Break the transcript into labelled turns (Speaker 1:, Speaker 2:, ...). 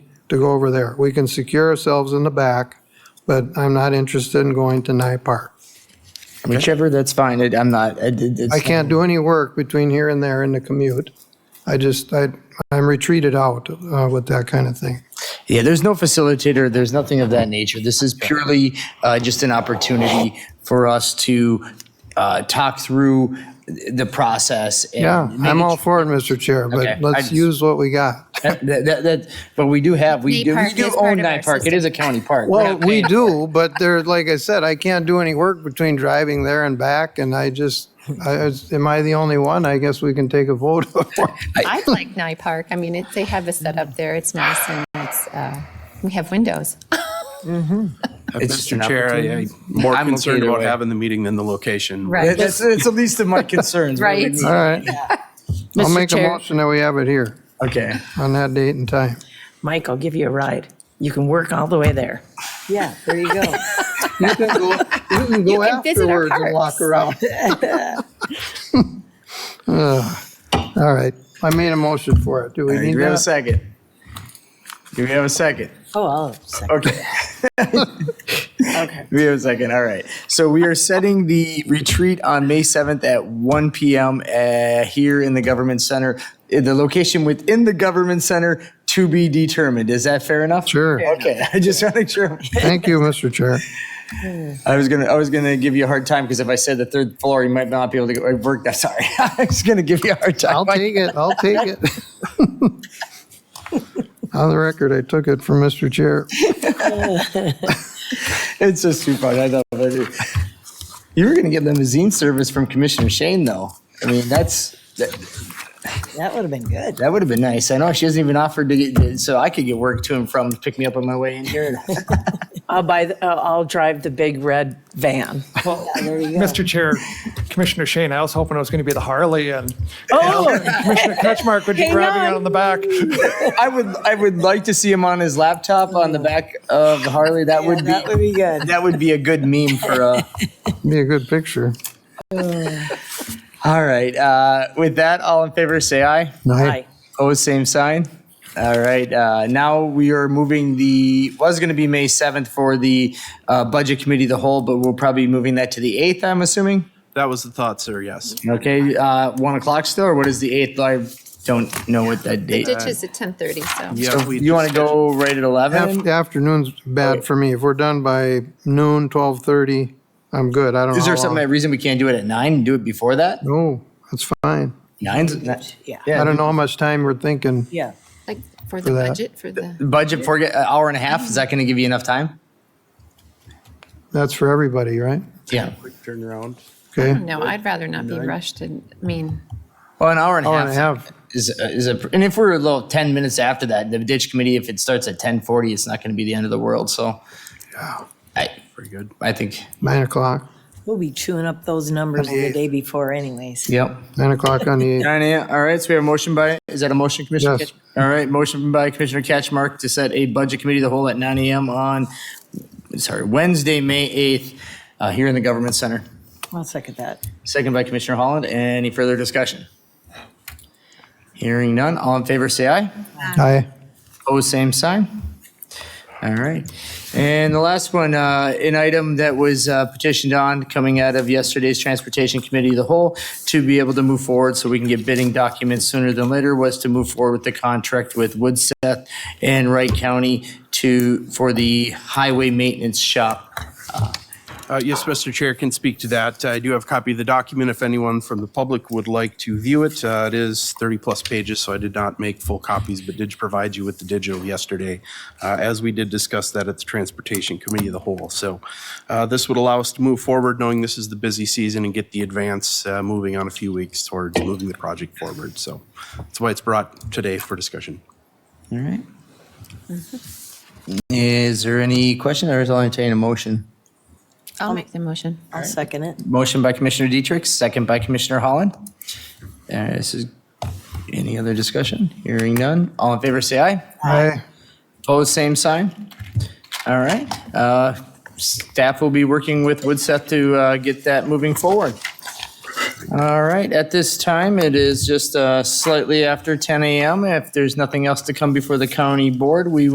Speaker 1: to go over there. We can secure ourselves in the back, but I'm not interested in going to Nye Park.
Speaker 2: Whichever, that's fine. It- I'm not, I did- it's.
Speaker 1: I can't do any work between here and there in the commute. I just, I, I'm retreated out uh, with that kind of thing.
Speaker 2: Yeah, there's no facilitator, there's nothing of that nature. This is purely uh, just an opportunity for us to uh, talk through the process. and
Speaker 1: Yeah, I'm
Speaker 2: manage-
Speaker 1: all for it, Mr. Chair,
Speaker 2: Okay, I
Speaker 1: but let's
Speaker 2: just-
Speaker 1: use what we got.
Speaker 2: That, that, that, but we do have, we
Speaker 3: Nye
Speaker 2: do, we
Speaker 3: Park
Speaker 2: do
Speaker 3: is part
Speaker 2: own
Speaker 3: of our
Speaker 2: Nye Park. It is a county park.
Speaker 1: Well, we do, but there, like I said, I can't do any work between driving there and back, and I just, I, I- am I the only one? I guess we can take a vote.
Speaker 3: I like Nye Park. I mean, it, they have a set up there. It's nice and it's, uh, we have windows.
Speaker 2: It's just an
Speaker 4: Mr. Chair, I- I'm more
Speaker 2: I'm okay
Speaker 4: concerned
Speaker 2: either
Speaker 4: about
Speaker 2: way.
Speaker 4: having the meeting than the location.
Speaker 3: Right.
Speaker 2: That's, that's the least of my concerns. really.
Speaker 3: Right.
Speaker 1: All right. I'll
Speaker 5: Mr.
Speaker 1: make a
Speaker 5: Chair.
Speaker 1: motion that we have it here
Speaker 2: Okay.
Speaker 1: on that date and time.
Speaker 5: Mike, I'll give you a ride. You can work all the way there.
Speaker 6: Yeah, there you go.
Speaker 1: You can go, you can go
Speaker 3: can visit our
Speaker 1: afterwards and walk
Speaker 3: parks.
Speaker 1: around. Ugh. All right, I made a motion for it. Do we
Speaker 2: Do
Speaker 1: need
Speaker 2: we have a
Speaker 1: that?
Speaker 2: second? Do we have a second?
Speaker 6: Oh, I'll second.
Speaker 2: Okay. okay. We have a second. All right. So we are setting the retreat on May 7th at 1 p.m. Uh, here in the government center. In The location within the government center to be determined. Is that fair enough?
Speaker 1: Sure.
Speaker 2: Okay. I just want to make sure.
Speaker 1: Thank you, Mr. Chair.
Speaker 2: I was gonna, I was gonna give you a hard time because if I said the third floor, you might not be able to get, work that, sorry. I was gonna give you a hard time.
Speaker 1: I'll take it, I'll take it. On the record, I took it from Mr. Chair.
Speaker 2: It's just too fun. I know. But it- you were gonna get limousine service from Commissioner Shane though. I mean, that's, that,
Speaker 6: That would have been good.
Speaker 2: That would have been nice. I know she hasn't even offered to get, so I could get work to and from, to pick me up on my way in here.
Speaker 5: I'll buy, the- I'll I'll drive the big red van.
Speaker 7: Well, Mr. Chair, Commissioner Shane, I was hoping it was going to be the Harley and
Speaker 5: Oh,
Speaker 7: Commissioner Ketchmark would be
Speaker 5: Hang
Speaker 7: grabbing
Speaker 5: on.
Speaker 7: it on the back.
Speaker 2: I would, I would like to see him on his laptop on the back of Harley. That would
Speaker 6: That would
Speaker 2: be,
Speaker 6: be good.
Speaker 2: that would be a good meme for, uh,
Speaker 1: Be a good picture.
Speaker 2: all right. Uh, with that, all in favor, say aye.
Speaker 1: Aye.
Speaker 6: Hi.
Speaker 2: Opposed, same sign. All right. Uh, now we are moving the, was going to be May 7th for the, uh, Budget Committee of the Whole, but we'll probably be moving that to the 8th, I'm assuming.
Speaker 4: That was the thought, sir, yes.
Speaker 2: Okay. Uh, one o'clock still, or what is the 8th? I don't know what that date
Speaker 3: Ditch is at 10:30, so.
Speaker 4: Yeah, we
Speaker 2: You want to go right at
Speaker 1: Af-
Speaker 2: 11?
Speaker 1: Afternoon's bad for me. If we're done by noon, 12:30, I'm good. I don't know.
Speaker 2: Is there
Speaker 1: how
Speaker 2: some
Speaker 1: long-
Speaker 2: reason we can't do it at 9 and do it before that?
Speaker 1: No, that's fine.
Speaker 2: Nine's,
Speaker 6: Yeah.
Speaker 1: I
Speaker 2: yeah,
Speaker 1: don't know how much time we're thinking.
Speaker 6: Yeah.
Speaker 3: Like for the
Speaker 1: that.
Speaker 3: budget, for the,
Speaker 2: budget for an hour and a half, is that going to give you enough time?
Speaker 1: That's for everybody, right?
Speaker 2: Yeah.
Speaker 4: turn around.
Speaker 1: Okay,
Speaker 3: no, I'd rather not be rushed and, I mean,
Speaker 2: Well, an hour and
Speaker 1: hour and a
Speaker 2: a half
Speaker 1: half.
Speaker 2: is, uh, is a, and if we're a little 10 minutes after that, the ditch committee, if it starts at 10:40, it's not going to be the end of the world, so. I,
Speaker 4: Pretty good.
Speaker 2: I think,
Speaker 1: Nine o'clock,
Speaker 6: We'll be chewing up those numbers the day before anyways.
Speaker 2: yep.
Speaker 1: nine o'clock on the 8th.
Speaker 2: All right, yeah. All right, so we have a motion by, is that a motion, Commissioner?
Speaker 1: Yes.
Speaker 2: Ketch- All right, motion by Commissioner Catchmark to set a budget committee of the whole at 9 AM on, sorry, Wednesday, May 8th, uh, here in the Government Center.
Speaker 6: I'll second that.
Speaker 2: Second by Commissioner Holland. Any further discussion? Hearing none. All in favor, say aye.
Speaker 1: Aye.
Speaker 2: Opposed, same sign. All right. And the last one, uh, an item that was uh, petitioned on coming out of yesterday's Transportation Committee of the Whole to be able to move forward so we can get bidding documents sooner than later was to move forward with the contract with Woodseth and Wright County to, for the highway maintenance shop.
Speaker 4: Uh, Yes, Mr. Chair, can speak to that. I do have a copy of the document if anyone from the public would like to view it. Uh, It is 30-plus pages, so I did not make full copies, but did provide you with the digital yesterday, uh, as we did discuss that at the Transportation Committee of the Whole. So uh, this would allow us to move forward, knowing this is the busy season, and get the advance uh, moving on a few weeks towards moving the project forward. So that's why it's brought today for discussion.
Speaker 2: All right. Is there any question or is I entertain a motion?
Speaker 3: I'll make the motion.
Speaker 6: I'll second it.
Speaker 2: Motion by Commissioner Dietrich, second by Commissioner Holland. Uh, This is, any other discussion? Hearing none. All in favor, say aye.
Speaker 1: Aye.
Speaker 2: Opposed, same sign. All right. Uh, Staff will be working with Woodseth to uh, get that moving forward. All right, at this time, it is just uh, slightly after 10 a.m. If there's nothing else to come before the county board, we